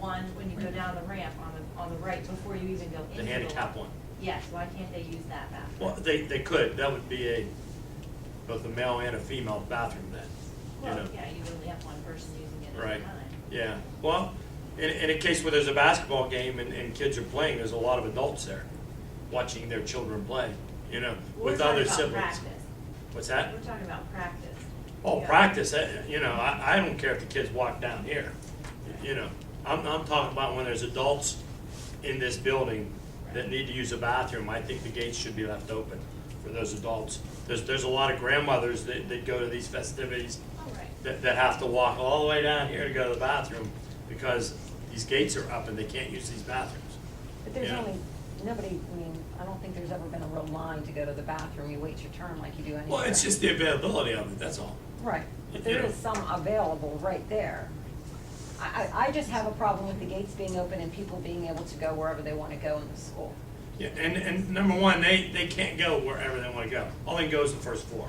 one when you go down the ramp on the, on the right before you even go into the. The handicap one. Yes, why can't they use that bathroom? Well, they, they could, that would be a, both a male and a female bathroom then, you know? Well, yeah, you only have one person using it at Right, a time. yeah, well, in, in a case where there's a basketball game and, and kids are playing, there's a lot of adults there watching their children play, you know, We're with talking other about siblings. practice. What's that? We're talking about practice. Oh, Yeah. practice, eh, you know, I, I don't care if the kids walk down here, you know, I'm, I'm talking about when there's adults in this building that need to use a bathroom, I think the gates should be left open for those adults. There's, there's a lot of grandmothers that, that go to these festivities All right. that, that have to walk all the way down here to go to the bathroom because these gates are up and they can't use these bathrooms. But there's Yeah. only, nobody, I mean, I don't think there's ever been a real line to go to the bathroom, you wait your turn like you do anywhere. Well, it's just the availability of it, that's all. Right, but there Yeah. is some available right there. I, I, I just have a problem with the gates being open and people being able to go wherever they wanna go in the school. Yeah, and, and number one, they, they can't go wherever they wanna go. All they can go is the first floor,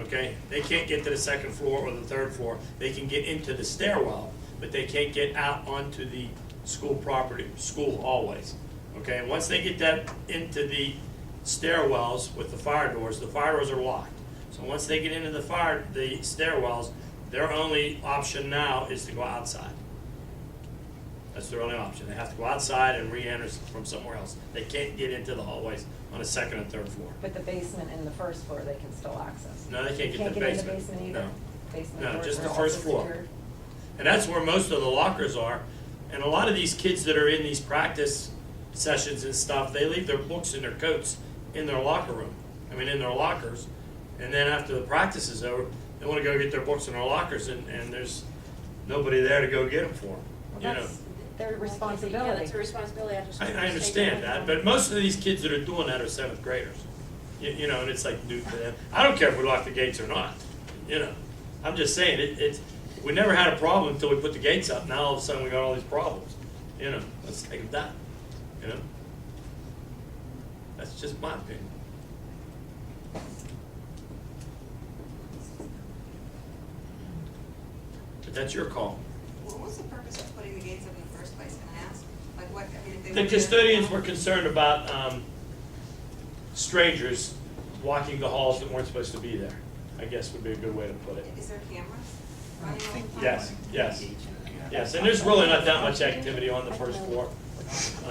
okay? They can't get to the second floor or the third floor. They can get into the stairwell, but they can't get out onto the school property, school hallways, okay? Once they get that into the stairwells with the fire doors, the fire doors are locked. So once they get into the fire, the stairwells, their only option now is to go outside. That's their only option. They have to go outside and re-enter from somewhere else. They can't get into the hallways on a second and third floor. But the basement and the first floor, they can still access. No, they can't get to the Can't get in the basement. basement either? No. Basement No, doors just are the also first floor. secured. And that's where most of the lockers are. And a lot of these kids that are in these practice sessions and stuff, they leave their books and their coats in their locker room. I mean, in their lockers. And then after the practice is over, they want to go get their books in their lockers and, and there's nobody there to go get them for them, Well, you know? that's their Yeah, responsibility. that's a responsibility after I, school. I understand that, but most of these kids that are doing that are seventh graders. You, you know, and it's like, dude, man, I don't care if we lock the gates or not, you know? I'm just saying, it, it's, we never had a problem until we put the gates up, now all of a sudden we got all these problems, you know? Let's take them down, you know? That's just my opinion. But that's your call. What was the purpose of putting the gates up in the first place, can I ask? Like what, I mean, if they. The were- custodians were concerned about um, strangers walking the halls that weren't supposed to be there, I guess would be a good way to put it. Is there cameras running all the time? Yes, yes, yes, and there's really not that much activity on the first floor.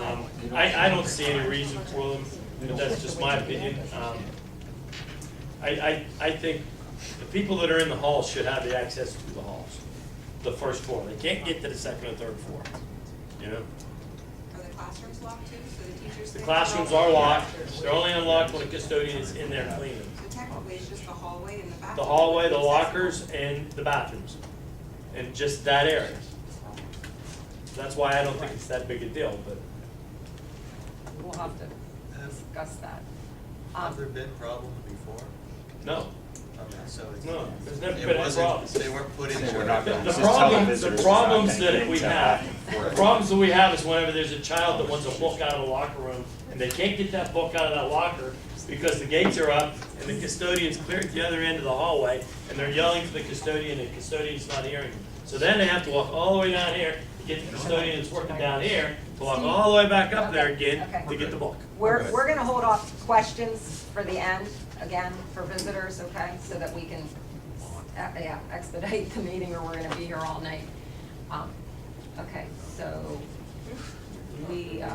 Um, I, I don't see any reason for them, but that's just my opinion. Um, I, I, I think the people that are in the halls should have the access to the halls, the first floor. They can't get to the second or third floor, you know? Are the classrooms locked too, so the teachers? The think- classrooms are locked, they're only unlocked when the custodian is in there cleaning. So technically, it's just the hallway and the bathroom. The hallway, the lockers, and the bathrooms, and just that area. That's why I don't think it's that big a deal, but We'll have to Um, discuss that. Have there Um, been problems before? no, Okay, so it's. no, there's never it been a wasn't- problem. They weren't put in. They were not The gonna- the This is problem, television, the it's problems not gonna that we get into have, that. the problems that we have is whenever there's a child that wants a book out of the locker room, and they can't get that book out of that locker because the gates are up, and the custodian's clear at the other end of the hallway, and they're yelling for the custodian, and the custodian's not hearing them. So then they have to walk all the way down here to get the custodian that's working down here, to walk all the way back up there again to get the book. We're, Okay. we're gonna hold off questions for the end, again, for visitors, okay, so that we can, uh, yeah, expedite the meeting, or we're gonna be here all night. Um, Okay, so, we, uh,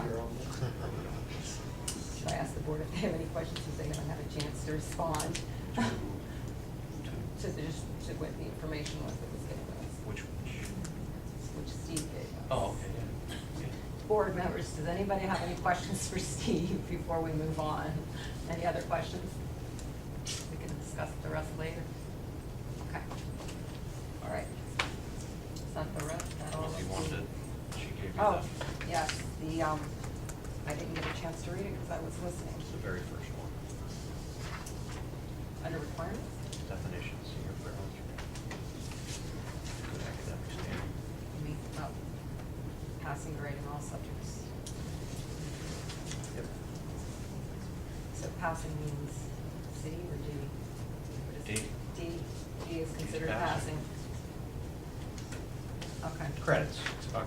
should I ask the board if they have any questions, since they haven't had a chance to respond? To, the- just to what the information was that was given to us, Which, which Steve gave us. oh, okay, Board members, does anybody have any questions for Steve before we move on? Any other questions? We can discuss the rest later. Okay. All right. Is that the rest? That all? if you wanted, she gave you Oh, that, yes, the, um, I didn't get a chance to read it because I was listening. it's the very first one, Under requirements? definitions, senior fair health. Good academic standing. You mean, oh, passing grade in all subjects. So passing means C or D? What is it? D, D is considered passing. passing. Okay. Credits, it's about